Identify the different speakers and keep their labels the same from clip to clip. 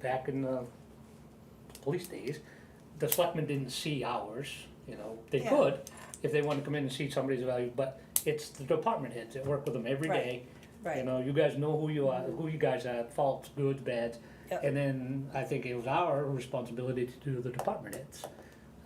Speaker 1: back in the police days, the selectmen didn't see ours, you know, they
Speaker 2: Yeah.
Speaker 1: could, if they wanted to come in and see somebody's value, but it's the department heads that work with them every
Speaker 2: Right.
Speaker 1: day. You
Speaker 2: right,
Speaker 1: know, you guys know who you are, who you guys are, faults, goods, bads.
Speaker 2: Yep.
Speaker 1: And then I think it was our responsibility to do the department heads. Uh,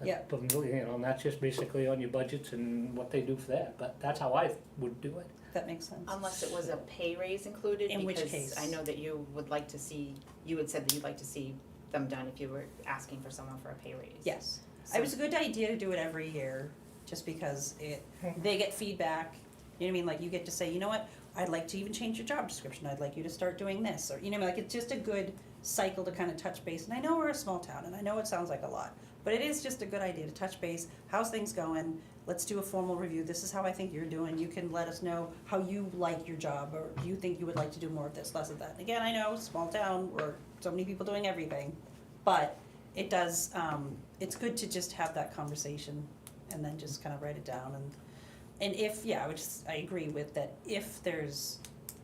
Speaker 2: Yep.
Speaker 1: But, You know, and that's just basically on your budgets and what they do for that, but that's how I would do it.
Speaker 2: that makes sense.
Speaker 3: Unless it was a pay raise included,
Speaker 2: In which
Speaker 3: because
Speaker 2: case?
Speaker 3: I know that you would like to see, you had said that you'd like to see them done if you were asking for someone for a pay raise.
Speaker 2: Yes,
Speaker 3: So-
Speaker 2: it was a good idea to do it every year, just because it, they get feedback, you know what I mean, like you get to say, you know what, I'd like to even change your job description, I'd like you to start doing this, or, you know, like it's just a good cycle to kind of touch base, and I know we're a small town, and I know it sounds like a lot, but it is just a good idea to touch base, how's things going, let's do a formal review, this is how I think you're doing, you can let us know how you like your job, or do you think you would like to do more of this, less of that, And again, I know, small town, we're so many people doing everything, but it does, um, it's good to just have that conversation and then just kind of write it down and, and if, yeah, I would just, I agree with that, if there's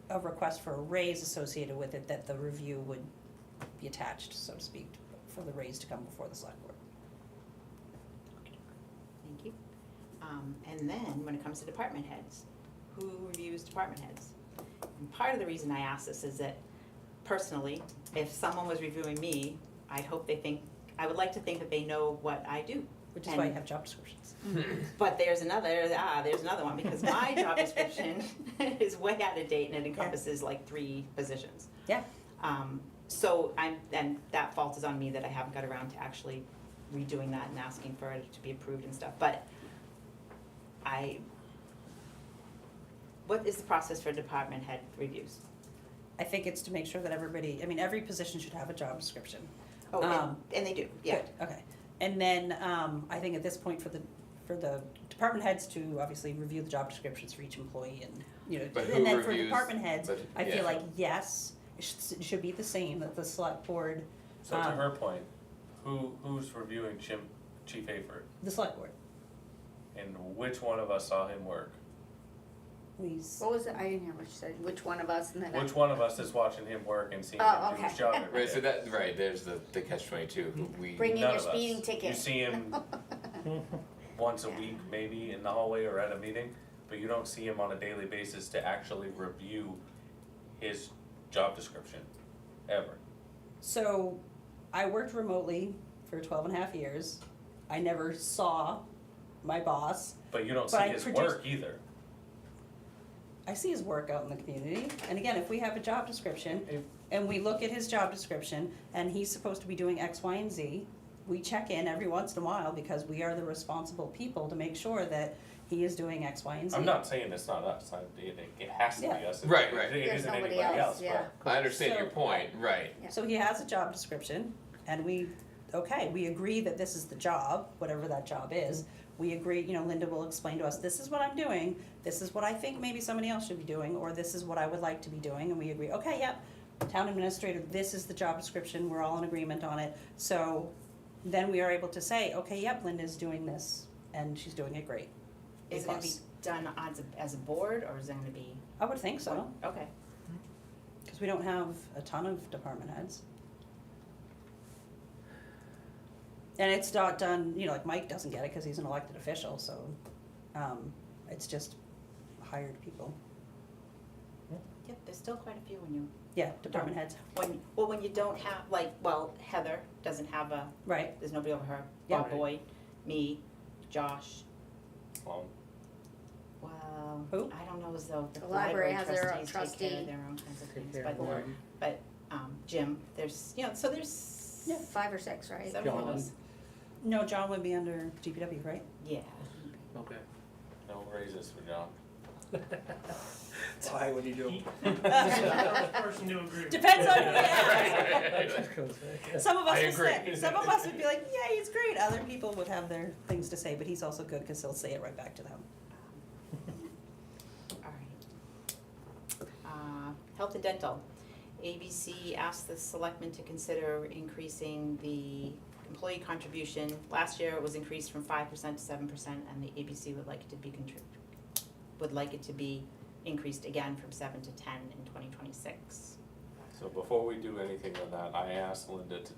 Speaker 2: a request for a raise associated with it, that the review would be attached, so to speak, for the raise to come before the select board.
Speaker 3: Thank you. Um, and then when it comes to department heads, who reviews department heads? And part of the reason I ask this is that personally, if someone was reviewing me, I hope they think, I would like to think that they know what I do.
Speaker 2: Which is why you
Speaker 3: And-
Speaker 2: have job descriptions.
Speaker 3: But there's another, ah, there's another one, because my job description is way out of date and it encompasses like three positions.
Speaker 2: Yeah.
Speaker 3: Um, so I'm, and that fault is on me that I haven't got around to actually redoing that and asking for it to be approved and stuff, but I, what is the process for department head reviews?
Speaker 2: I think it's to make sure that everybody, I mean, every position should have a job description.
Speaker 3: Oh, and,
Speaker 2: Um,
Speaker 3: and they do, yeah.
Speaker 2: Good, okay. And then, um, I think at this point for the, for the department heads to obviously review the job descriptions for each employee and, you know,
Speaker 4: But
Speaker 2: and
Speaker 4: who
Speaker 2: then for
Speaker 4: reviews-
Speaker 2: department heads,
Speaker 4: but-
Speaker 2: I
Speaker 4: yeah.
Speaker 2: feel like, yes, it should, it should be the same, that the select board,
Speaker 5: So to
Speaker 6: Ah.
Speaker 2: Um,
Speaker 5: her point, who who's reviewing Chim, Chief Hayford,
Speaker 2: the select board,
Speaker 5: and which one of us saw him work?
Speaker 2: please.
Speaker 6: What was it? I didn't hear what you said. Which one of us and then I-
Speaker 5: Which one of us is watching him work and seeing
Speaker 6: Oh,
Speaker 5: him do his
Speaker 6: okay.
Speaker 5: job every
Speaker 4: Right, so
Speaker 5: day?
Speaker 4: that right, there's the, the catch twenty two.
Speaker 2: Mm-hmm.
Speaker 4: We
Speaker 6: bring in
Speaker 5: None
Speaker 6: your
Speaker 5: of us.
Speaker 6: speeding ticket.
Speaker 5: You see him once a
Speaker 6: Yeah.
Speaker 5: week, maybe in the hallway or at a meeting, but you don't see him on a daily basis to actually review his job description, ever.
Speaker 2: So, I worked remotely for twelve and a half years. I never saw my boss.
Speaker 5: But you don't
Speaker 2: But
Speaker 5: see
Speaker 2: I
Speaker 5: his
Speaker 2: produce-
Speaker 5: work either.
Speaker 2: I see his work out in the community, and again, if we have a job description,
Speaker 5: If-
Speaker 2: and we look at his job description, and he's supposed to be doing X, Y, and Z, we check in every once in a while because we are the responsible people to make sure that he is doing X, Y, and Z.
Speaker 5: I'm not saying it's not us, I, it, it has to be
Speaker 2: Yeah.
Speaker 5: us, It-
Speaker 4: Right, right.
Speaker 5: it
Speaker 6: There's
Speaker 5: isn't
Speaker 6: nobody
Speaker 5: anybody
Speaker 6: else,
Speaker 5: else,
Speaker 6: yeah.
Speaker 5: but
Speaker 4: I understand your
Speaker 2: So-
Speaker 4: point, right.
Speaker 2: So he has a job description, and we, okay, we agree that this is the job, whatever that job is. We agree, you know, Linda will explain to us, this is what I'm doing, this is what I think maybe somebody else should be doing, or this is what I would like to be doing, and we agree, okay, yep. Town administrator, this is the job description, we're all in agreement on it, so then we are able to say, okay, yep, Linda's doing this, and she's doing it great.
Speaker 3: Is it gonna be
Speaker 2: Because-
Speaker 3: done as a, as a board, or is it gonna be?
Speaker 2: I would think so,
Speaker 3: Okay,
Speaker 2: cause we don't have a ton of department heads. And it's not done, you know, like Mike doesn't get it because he's an elected official, so, um, it's just hired people.
Speaker 3: yep, there's still quite a few when you
Speaker 2: Yeah, department heads,
Speaker 3: When, well, when you don't have, like, well, Heather doesn't have a,
Speaker 2: right,
Speaker 3: there's nobody over her,
Speaker 2: Yeah.
Speaker 3: Bob Boyd, me, Josh,
Speaker 5: well,
Speaker 3: well,
Speaker 2: Who?
Speaker 3: I don't know as though the
Speaker 6: The
Speaker 3: library
Speaker 6: library has their own
Speaker 3: trustees take care
Speaker 6: trustee.
Speaker 3: of their own kinds of
Speaker 1: Take
Speaker 3: things,
Speaker 1: care of
Speaker 3: but,
Speaker 1: them.
Speaker 3: um, Jim, there's, you know, so there's
Speaker 6: Five or six, right?
Speaker 3: several of
Speaker 1: John.
Speaker 3: us,
Speaker 2: no, John would be under GPW, right?
Speaker 3: yeah.
Speaker 1: Okay.
Speaker 5: no raises for John.
Speaker 7: Why would you do? it?
Speaker 8: person to agree with.
Speaker 2: Depends on who you ask.
Speaker 1: That's
Speaker 2: Some of us
Speaker 4: I
Speaker 2: would say,
Speaker 4: agree.
Speaker 2: some of us would be like, yeah, he's great, other people would have their things to say, but he's also good, cause he'll say it right back to them.
Speaker 3: Alright. Uh, health and dental, ABC asked the selectmen to consider increasing the employee contribution. Last year it was increased from five percent to seven percent and the ABC would like it to be contrib- would like it to be increased again from seven to ten in twenty twenty-six.
Speaker 5: So before we do anything with that, I asked Linda to